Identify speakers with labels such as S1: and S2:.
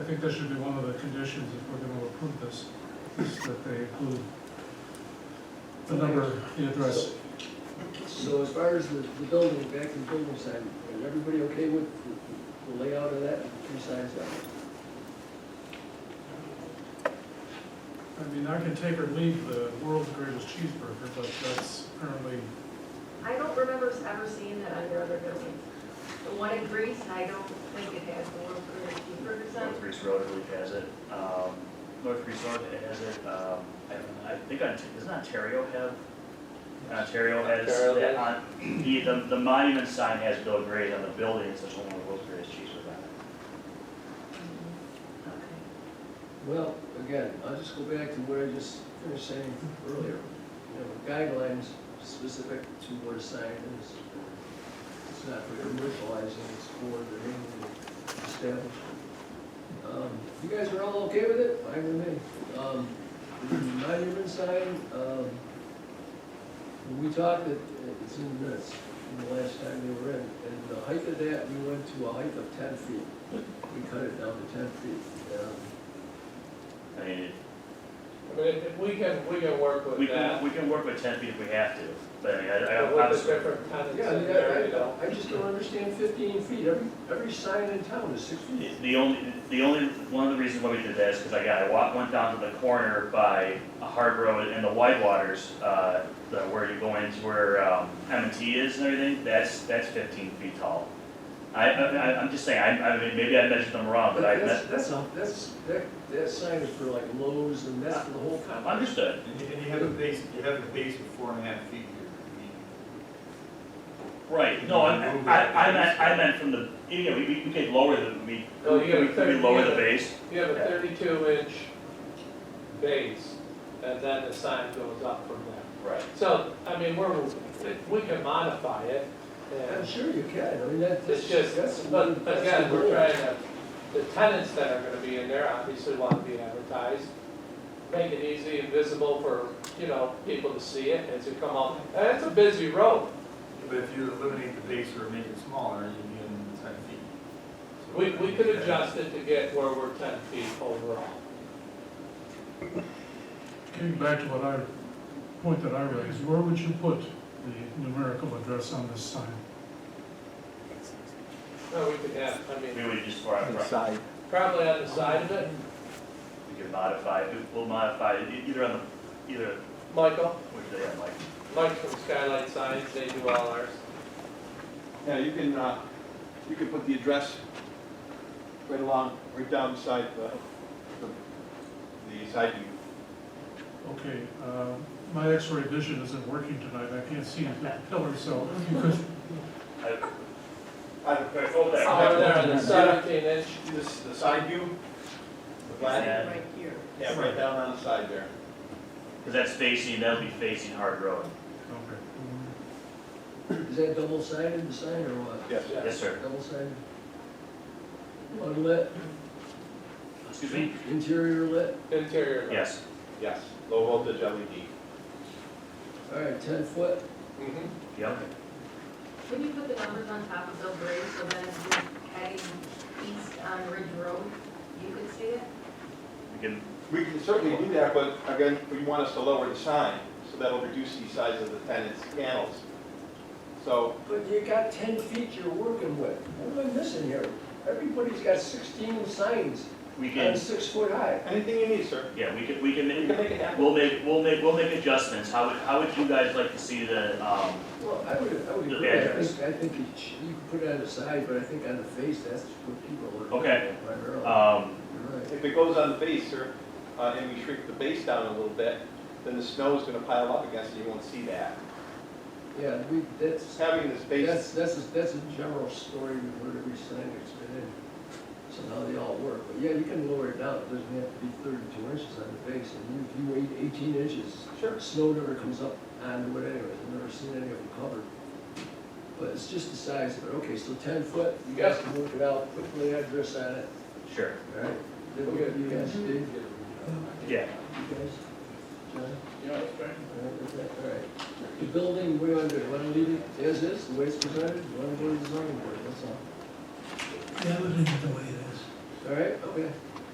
S1: think that should be one of the conditions if we're gonna approve this, is that they include the number, the address.
S2: So as far as the, the building, back to the building side, is everybody okay with the- the layout of that, three sides of it?
S1: I mean, I can take or leave the world's greatest cheeseburger, but that's apparently,
S3: I don't remember ever seeing that under other buildings. The one in Greece, I don't think it has the word for cheeseburgers on it.
S4: North Greece Road, I believe, has it. Um, North Greece Road has it. Um, I I think, Ont- doesn't Ontario have? Ontario has,
S5: Ontario
S4: that on- the, the- the monument sign has Bill Gray's on the building, it says home of Bill Gray's cheeseburger on it.
S3: Okay.
S2: Well, again, I'll just go back to what I just finished saying earlier. You know, guidelines specific to what a sign is. It's not for commercializing, it's for the name of the establishment. Um, You guys are all okay with it? I with me. Um, the Monument sign, um, when we talked, it- it's in the minutes, from the last time they were in, and the height of that, we went to a height of ten feet. We cut it down to ten feet. Um,
S4: I mean, it-
S5: But if if we can, we can work
S4: we
S5: with
S4: can,
S5: that.
S4: we can work with ten feet if we have to, but I mean, I, I
S5: With the
S4: obviously.
S5: different tenants
S2: Yeah,
S5: in there, you
S2: yeah,
S5: know.
S2: I, I just don't understand fifteen feet, every, every sign in town is six feet.
S4: The only, the only, one of the reasons why we did that is because I got, I wa- went down to the corner by a Hard Road and the Whitewaters, uh, the, where you go into where, um, M and T is and everything, that's, that's fifteen feet tall. I, I, I- I'm just saying, I, I mean, maybe I measured them wrong, but I,
S2: That's,
S4: that's
S2: that's, a- that's, that, that sign is for like Lowe's and that's for the whole town.
S4: understood.
S6: And you, and you have a base, you have a base of four and a half feet here.
S4: Right, no, I, I, I meant, I meant from the, you know, we, we we could lower the, we,
S5: No, you gotta
S4: we could
S5: think-
S4: lower the base.
S5: You have a thirty-two inch base, and then the sign goes up from there.
S4: Right.
S5: So, I mean, we're, we can modify it,
S2: I'm
S5: and
S2: sure you can, I mean, that, that's,
S5: it's just,
S2: that's.
S5: but
S2: that's
S5: again,
S2: the
S5: we're
S2: goal.
S5: trying to, the tenants that are gonna be in there obviously want to be advertised. Make it easy and visible for, you know, people to see it as you come up. And it's a busy road.
S6: But if you eliminate the base or make it smaller, you need ten feet. So-
S5: We, we could adjust it to get where we're ten feet overall.
S1: getting back to what I, point that I raised, where would you put the numerical address on this sign?
S5: No, we could have, I mean,
S4: We would just, for, for,
S7: Inside.
S5: probably on the side of it,
S4: we could modify, it. we'll modify it either on the, either,
S5: Michael,
S4: which they have, like,
S5: Mike from Skylight Signs, they do all ours.
S8: Yeah, you can, uh, you can put the address right along, right down beside the, uh, the the side view.
S1: Okay, uh, my x-ray vision isn't working tonight, I can't see the pillar, so if you could
S4: I,
S8: I don't
S4: Okay, over there.
S5: Over there on the seventeen inch,
S8: see this, the side view? The black?
S4: Yeah.
S3: Right here.
S8: Yeah, right down on the side there.
S4: Because that's facing, that'll be facing Hard Road.
S1: Okay.
S2: Is that double sided, the sign or what?
S8: Yes.
S5: Yeah.
S4: Yes, sir.
S2: Double sided? Unlit,
S4: Excuse me?
S2: interior lit,
S5: interior. light.
S4: Yes.
S8: Yes, low voltage E LED.
S2: all right, ten foot,
S5: Mhm.
S4: Yep.
S3: When you put the numbers on top of Bill Gray, so then if you're heading east on Ridge Road, you could see it?
S4: We can,
S8: We can certainly do that, but again, we want us to lower the sign, so that'll reduce the size of the tenant's panels. So,
S2: but you got ten feet you're working with, what am I missing here? Everybody's got sixteen signs,
S4: we
S2: and
S4: can,
S2: six foot high.
S8: anything you need, sir.
S4: yeah, we can, we can,
S8: We can
S4: make-
S8: make it happen.
S4: we'll make, we'll make, we'll make adjustments. How would, how would you guys like to see the, um,
S2: Well, I would, I would
S4: The
S2: agree, I
S4: address.
S2: think, I think you sh- you can put it on the side, but I think on the face, that's what people are looking
S4: Okay.
S2: at primarily.
S4: um,
S2: You're right.
S8: If it goes on the base, sir, uh, and we shrink the base down a little bit, then the snow is gonna pile up against it, you won't see that.
S2: Yeah, we, that's,
S8: Having this base,
S2: that's, that's, a- that's a general story we've heard every sign that's been in. So now they all work, but yeah, you can lower it down, it doesn't have to be thirty-two inches on the face, and if you wait eighteen inches,
S8: sure,
S2: snow never comes up onto it anyways, I've never seen any of them covered. But it's just the size of it, okay, so ten foot, you guys can work it out, put the address on it,
S4: sure,
S2: all right? Then we'll get you guys, Steve.
S4: yeah.
S2: You guys? John? All right, is that- all right. The building, we want to, want to leave it as is, the way it's presented, want to go to the zoning board, that's all.
S9: Yeah, we'll leave it the way it is.
S2: All right, okay.